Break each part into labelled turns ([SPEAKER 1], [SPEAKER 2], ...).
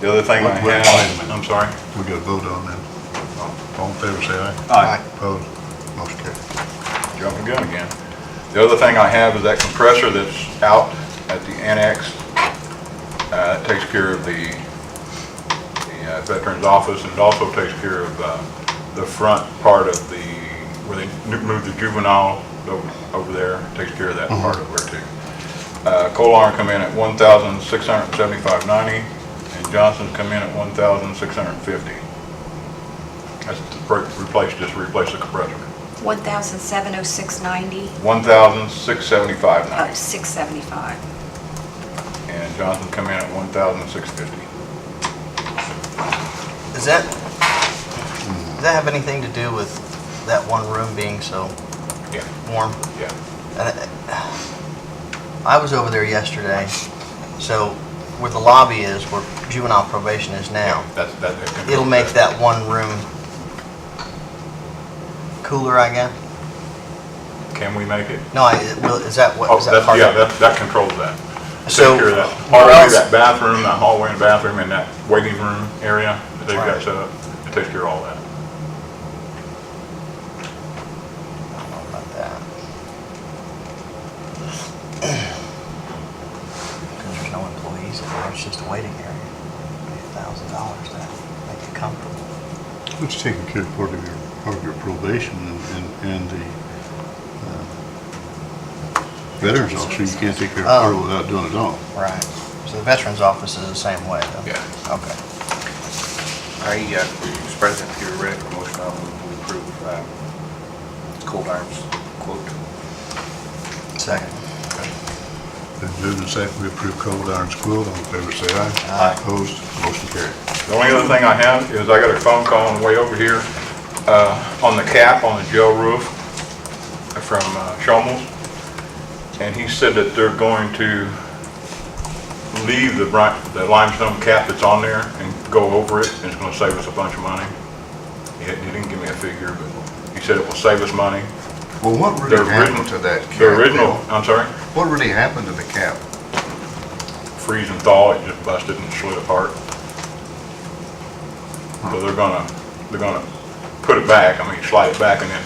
[SPEAKER 1] The other thing I
[SPEAKER 2] Wait, wait, wait a
[SPEAKER 1] have,
[SPEAKER 2] minute.
[SPEAKER 1] I'm sorry.
[SPEAKER 2] We got to vote on that. All in favor, say aye.
[SPEAKER 1] Aye.
[SPEAKER 2] Opposed, motion carried.
[SPEAKER 1] Jumping the gun again. The other thing I have is that compressor that's out at the annex. Uh, it takes care of the, the uh, Veterans Office and it also takes care of, uh, the front part of the, where they n- moved the juvenile over, over there. Takes care of that part of there too. Uh, Coal Iron come in at one thousand six hundred and seventy-five ninety and Johnson's come in at one thousand six hundred and fifty. That's to re- replace, just replace the compressor.
[SPEAKER 3] 1,706.90, uh,
[SPEAKER 1] 1,675.90,
[SPEAKER 3] 675.
[SPEAKER 1] and Johnson come in at 1,650.
[SPEAKER 4] Does that, does that have anything to do with that one room being so
[SPEAKER 1] Yeah,
[SPEAKER 4] warm?
[SPEAKER 1] yeah.
[SPEAKER 4] And I- I was over there yesterday, so where the lobby is, where juvenile probation is now,
[SPEAKER 1] That's, that.
[SPEAKER 4] it'll make that one room cooler, I guess?
[SPEAKER 1] Can we make it?
[SPEAKER 4] No, I, it will- is that what,
[SPEAKER 1] Oh,
[SPEAKER 4] is that
[SPEAKER 1] that's,
[SPEAKER 4] part
[SPEAKER 1] yeah,
[SPEAKER 4] of it?
[SPEAKER 1] that, that controls that. Take
[SPEAKER 4] So,
[SPEAKER 1] care of that
[SPEAKER 4] where
[SPEAKER 1] hallway,
[SPEAKER 4] else-
[SPEAKER 1] that bathroom, that hallway and bathroom, and that waiting room area that they've got
[SPEAKER 4] Right.
[SPEAKER 1] set up, it takes care of all that.
[SPEAKER 4] I don't know about that. 'Cause there's no employees in there, it's just a waiting area. A thousand dollars to make it comfortable.
[SPEAKER 2] It's taking care of part of your, part of your probation and, and- and the uh, veterans officer, you can't take care of part of it without doing it all.
[SPEAKER 4] Right. So the veterans office is the same way, though?
[SPEAKER 5] Yeah.
[SPEAKER 4] Okay.
[SPEAKER 5] I, uh, Mr. President, if you're ready for motion, I'll move to approve uh, Cold Arms quote.
[SPEAKER 4] Second.
[SPEAKER 2] Then moving and second, we approve Cold Iron's Quilt. All in favor, say aye.
[SPEAKER 4] Aye.
[SPEAKER 2] Opposed, motion carried.
[SPEAKER 1] The only other thing I have is I got a phone call on the way over here, uh, on the cap on the jail roof from uh, Shomels. And he said that they're going to leave the bri- the limestone cap that's on there and go over it, and it's gonna save us a bunch of money. He he didn't give me a figure, but he said it will save us money.
[SPEAKER 2] Well, what
[SPEAKER 1] The original- The original, I'm sorry,
[SPEAKER 2] What really happened to the cap?
[SPEAKER 1] freeze and thaw, it just busted and slid apart. So they're gonna, they're gonna put it back, I mean, slide it back and then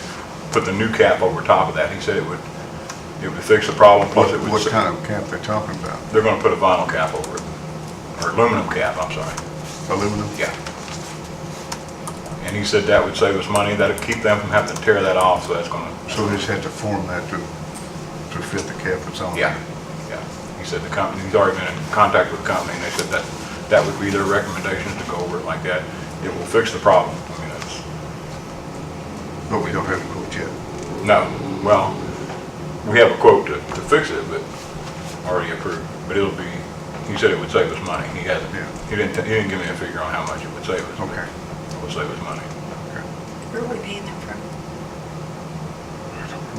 [SPEAKER 1] put the new cap over top of that. He said it would, it would fix the problem, plus it would.
[SPEAKER 2] What kind of cap they're talking about?
[SPEAKER 1] They're gonna put a vinyl cap over it, or aluminum cap, I'm sorry.
[SPEAKER 2] Aluminum?
[SPEAKER 1] Yeah. And he said that would save us money, that'd keep them from having to tear that off, so that's gonna.
[SPEAKER 2] So they just had to form that to, to fit the cap that's on there?
[SPEAKER 1] Yeah, yeah. He said the company, he's already been in contact with the company, and they said that, that would be their recommendations to go over it like that. It will fix the problem. I mean, it's,
[SPEAKER 2] But we don't have a quote yet.
[SPEAKER 1] no, well, we have a quote to, to fix it, but already approved. But it'll be, he said it would save us money. He hasn't,
[SPEAKER 2] Yeah.
[SPEAKER 1] he didn't, he didn't give me a figure on how much it would save us. but
[SPEAKER 2] Okay.
[SPEAKER 1] It would save us money.
[SPEAKER 3] Where are we paying that from?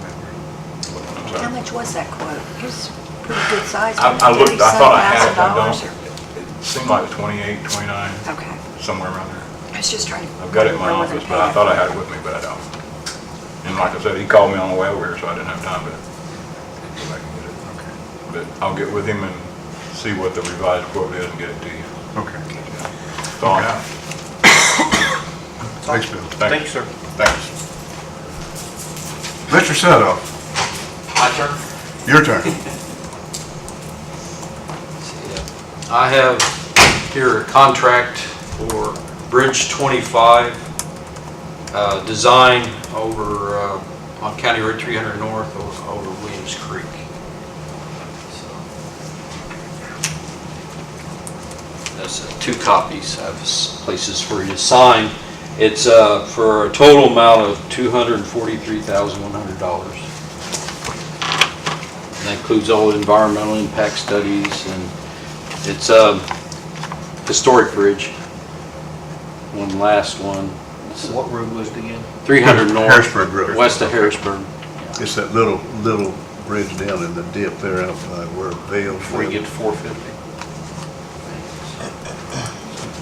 [SPEAKER 1] I'm
[SPEAKER 3] How
[SPEAKER 1] sorry.
[SPEAKER 3] much was that quote? It was pretty good size.
[SPEAKER 1] I, I looked, I thought I had it, I
[SPEAKER 3] $37,000
[SPEAKER 1] don't. It seemed like 28, 29,
[SPEAKER 3] or- Okay,
[SPEAKER 1] somewhere around there.
[SPEAKER 3] I was just trying to.
[SPEAKER 1] I've got it in my
[SPEAKER 3] remember where
[SPEAKER 1] office,
[SPEAKER 3] they
[SPEAKER 1] but I
[SPEAKER 3] paid
[SPEAKER 1] thought I had it with me, but I don't. And like I said, he called me on the way over here, so I didn't have time to go back and get it.
[SPEAKER 2] Okay,
[SPEAKER 1] But I'll get with him and see what the revised quote is and get it to you.
[SPEAKER 2] okay.
[SPEAKER 1] That's all I have.
[SPEAKER 2] Thanks, Bill.
[SPEAKER 5] Thank you, sir.
[SPEAKER 1] Thanks.
[SPEAKER 2] Mr. Sudoff,
[SPEAKER 6] My turn?
[SPEAKER 2] your turn.
[SPEAKER 6] I have here a contract for Bridge 25, uh, design over, uh, on County Road 300 North o- over Williams Creek. So, That's uh, two copies, I have s- places for you to sign. It's uh, for a total amount of $243,100. And That includes all environmental impact studies, and it's a historic bridge. One last one. It's
[SPEAKER 4] What room was it again?
[SPEAKER 6] 300 North.
[SPEAKER 2] Harrisburg Road.
[SPEAKER 6] West of Harrisburg,
[SPEAKER 2] It's that little, little bridge down in the dip there out by where Vale's.
[SPEAKER 6] before you get to 450.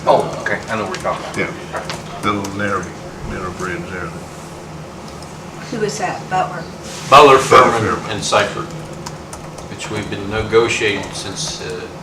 [SPEAKER 5] Oh, okay, I know what you're talking about.
[SPEAKER 2] Yeah. Little narrow, narrow bridge there.
[SPEAKER 3] for. Who was that, Butler?
[SPEAKER 2] Butler,
[SPEAKER 6] Butler, Furman,
[SPEAKER 2] Furman.
[SPEAKER 6] and Seifert, which we've been negotiating since uh,